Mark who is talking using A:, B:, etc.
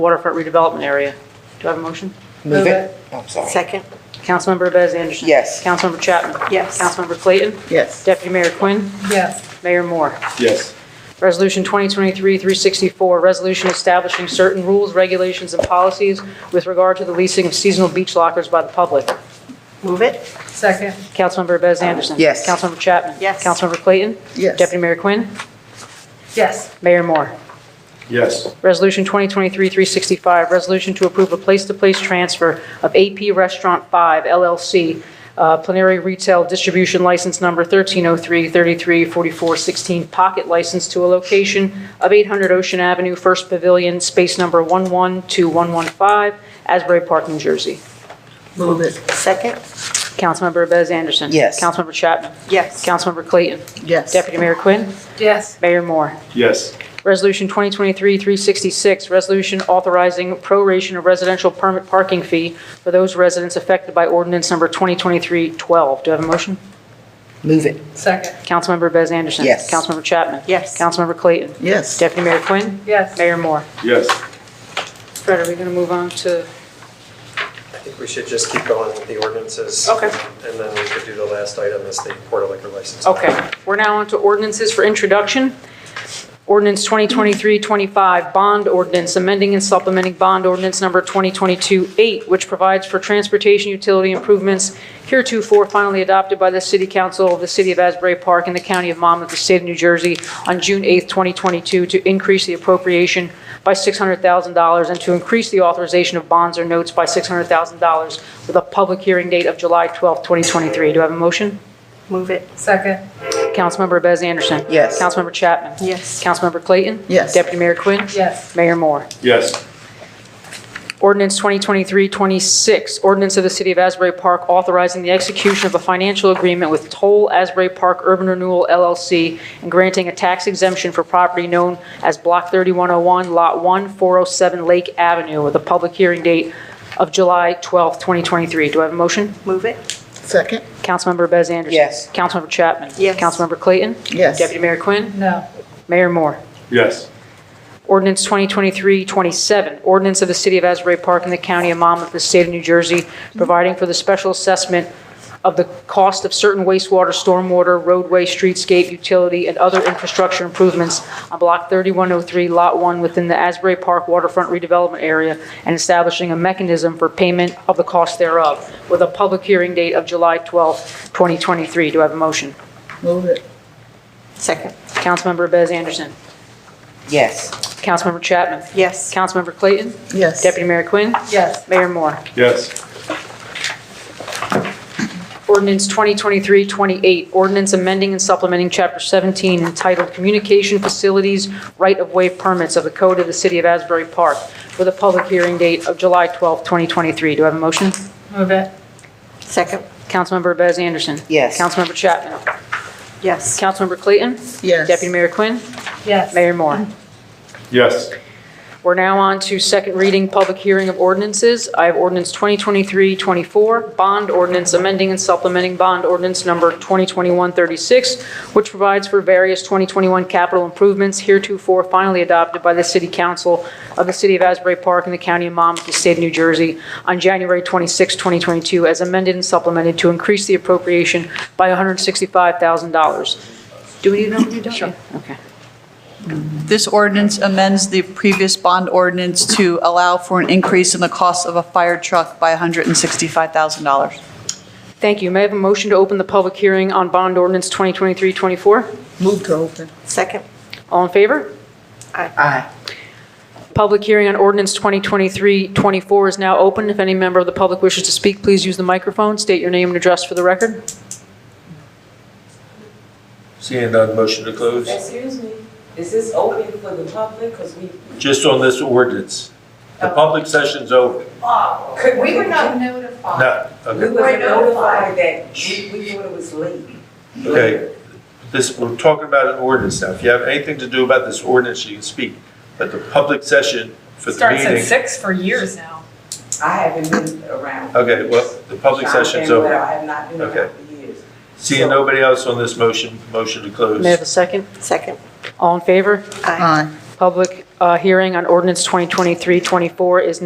A: waterfront redevelopment area. Do I have a motion?
B: Move
C: Move
B: it.
C: it. Oh, I'm sorry.
D: Second.
A: Councilmember Bez Anderson.
C: Yes.
A: Councilmember Chapman.
D: Yes.
A: Councilmember Clayton.
B: Yes.
A: Deputy Mayor Quinn.
B: Yes.
A: Mayor Moore.
E: Yes.
A: Resolution 2023-364, resolution establishing certain rules, regulations, and policies with regard to the leasing of seasonal beach lockers by the public.
D: Move it.
B: Second.
A: Councilmember Bez Anderson.
C: Yes.
A: Councilmember Chapman.
D: Yes.
A: Councilmember Clayton.
B: Yes.
A: Deputy Mayor Quinn.
B: Yes.
A: Mayor Moore.
E: Yes.
A: Resolution 2023-365, resolution to approve a place-to-place transfer of AP Restaurant 5 LLC, uh, plenary retail distribution license number 1303-334416, pocket license to a location of 800 Ocean Avenue, First Pavilion, space number 112115, Asbury Park, New Jersey.
B: Move it.
D: Second.
A: Councilmember Bez Anderson.
C: Yes.
A: Councilmember Chapman.
D: Yes.
A: Councilmember Clayton.
B: Yes.
A: Deputy Mayor Quinn.
B: Yes.
A: Mayor Moore.
E: Yes.
A: Resolution 2023-366, resolution authorizing proration of residential permit parking fee for those residents affected by ordinance number 2023-12. Do I have a motion?
C: Move it.
B: Second.
A: Councilmember Bez Anderson.
C: Yes.
A: Councilmember Chapman.
D: Yes.
A: Councilmember Clayton.
B: Yes.
A: Deputy Mayor Quinn.
B: Yes.
A: Mayor Moore.
E: Yes.
A: Fred, are we going to move on to,
F: I think we should just keep going with the ordinances.
A: Okay.
F: And then we could do the last item as the Port of Liquor License.
A: okay, we're now on to ordinances for introduction. Ordinance 2023-25, bond ordinance, amending and supplementing bond ordinance number 2022-8, which provides for transportation utility improvements heretofore finally adopted by the City Council of the City of Asbury Park and the County of Monmouth, the State of New Jersey, on June 8, 2022, to increase the appropriation by $600,000 and to increase the authorization of bonds or notes by $600,000 with a public hearing date of July 12, 2023. Do I have a motion?
D: Move it.
B: Second.
A: Councilmember Bez Anderson.
C: Yes.
A: Councilmember Chapman.
D: Yes.
A: Councilmember Clayton.
B: Yes.
A: Deputy Mayor Quinn.
B: Yes.
A: Mayor Moore.
E: Yes.
A: Ordinance 2023-26, ordinance of the City of Asbury Park authorizing the execution of a financial agreement with Toll Asbury Park Urban Renewal LLC and granting a tax exemption for property known as Block 3101, Lot 1, 407 Lake Avenue, with a public hearing date of July 12, 2023. Do I have a motion?
D: Move it.
B: Second.
A: Councilmember Bez Anderson.
C: Yes.
A: Councilmember Chapman.
D: Yes.
A: Councilmember Clayton.
B: Yes.
A: Deputy Mayor Quinn.
B: No.
A: Mayor Moore.
E: Yes.
A: Ordinance 2023-27, ordinance of the City of Asbury Park and the County of Monmouth, the State of New Jersey, providing for the special assessment of the cost of certain wastewater, stormwater, roadway, streetscape, utility, and other infrastructure improvements on Block 3103, Lot 1, within the Asbury Park waterfront redevelopment area, and establishing a mechanism for payment of the cost thereof, with a public hearing date of July 12, 2023. Do I have a motion?
B: Move it.
D: Second.
A: Councilmember Bez Anderson.
C: Yes.
A: Councilmember Chapman.
D: Yes.
A: Councilmember Clayton.
B: Yes.
A: Deputy Mayor Quinn.
B: Yes.
A: Mayor Moore.
E: Yes.
A: Ordinance 2023-28, ordinance amending and supplementing Chapter 17 entitled Communication Facilities Right-of-Way Permits of the Code of the City of Asbury Park with a public hearing date of July 12, 2023. Do I have a motion?
B: Move it.
D: Second.
A: Councilmember Bez Anderson.
C: Yes.
A: Councilmember Chapman.
D: Yes.
A: Councilmember Clayton.
B: Yes.
A: Deputy Mayor Quinn.
B: Yes.
A: Mayor Moore.
E: Yes.
A: We're now on to second reading, public hearing of ordinances. I have ordinance 2023-24, bond ordinance amending and supplementing bond ordinance number 2021-36, which provides for various 2021 capital improvements heretofore finally adopted by the City Council of the City of Asbury Park and the County of Monmouth, the State of New Jersey, on January 26, 2022, as amended and supplemented to increase the appropriation by $165,000. Do we need another reading? Sure. Okay.
G: This ordinance amends the previous bond ordinance to allow for an increase in the cost of a fire truck by $165,000.
A: Thank you. May I have a motion to open the public hearing on bond ordinance 2023-24?
B: Move to open.
D: Second.
A: All in favor?
B: Aye.
A: Public hearing on ordinance 2023-24 is now open. If any member of the public wishes to speak, please use the microphone, state your name and address for the record.
H: Seeing none, motion to close?
I: Excuse me, is this open for the public? Because we,
H: Just on this ordinance. The public session's over.
I: could we, were not-
H: No,
I: we
H: okay,
I: were notified that we, we thought it was late.
H: okay. This, we're talking about an ordinance now. If you have anything to do about this ordinance, you can speak. But the public session for the meeting,
B: six for years now.
I: I haven't been around.
H: okay, well, the public
I: Sean
H: session's
I: Campbell,
H: over.
I: I have not been
H: Okay.
I: around for years.
H: Seeing nobody else on this motion, motion to
A: May I have
H: close?
A: a second?
D: Second.
A: All in favor?
D: Aye.
B: Aye.
A: Public uh, hearing on ordinance 2023-24 is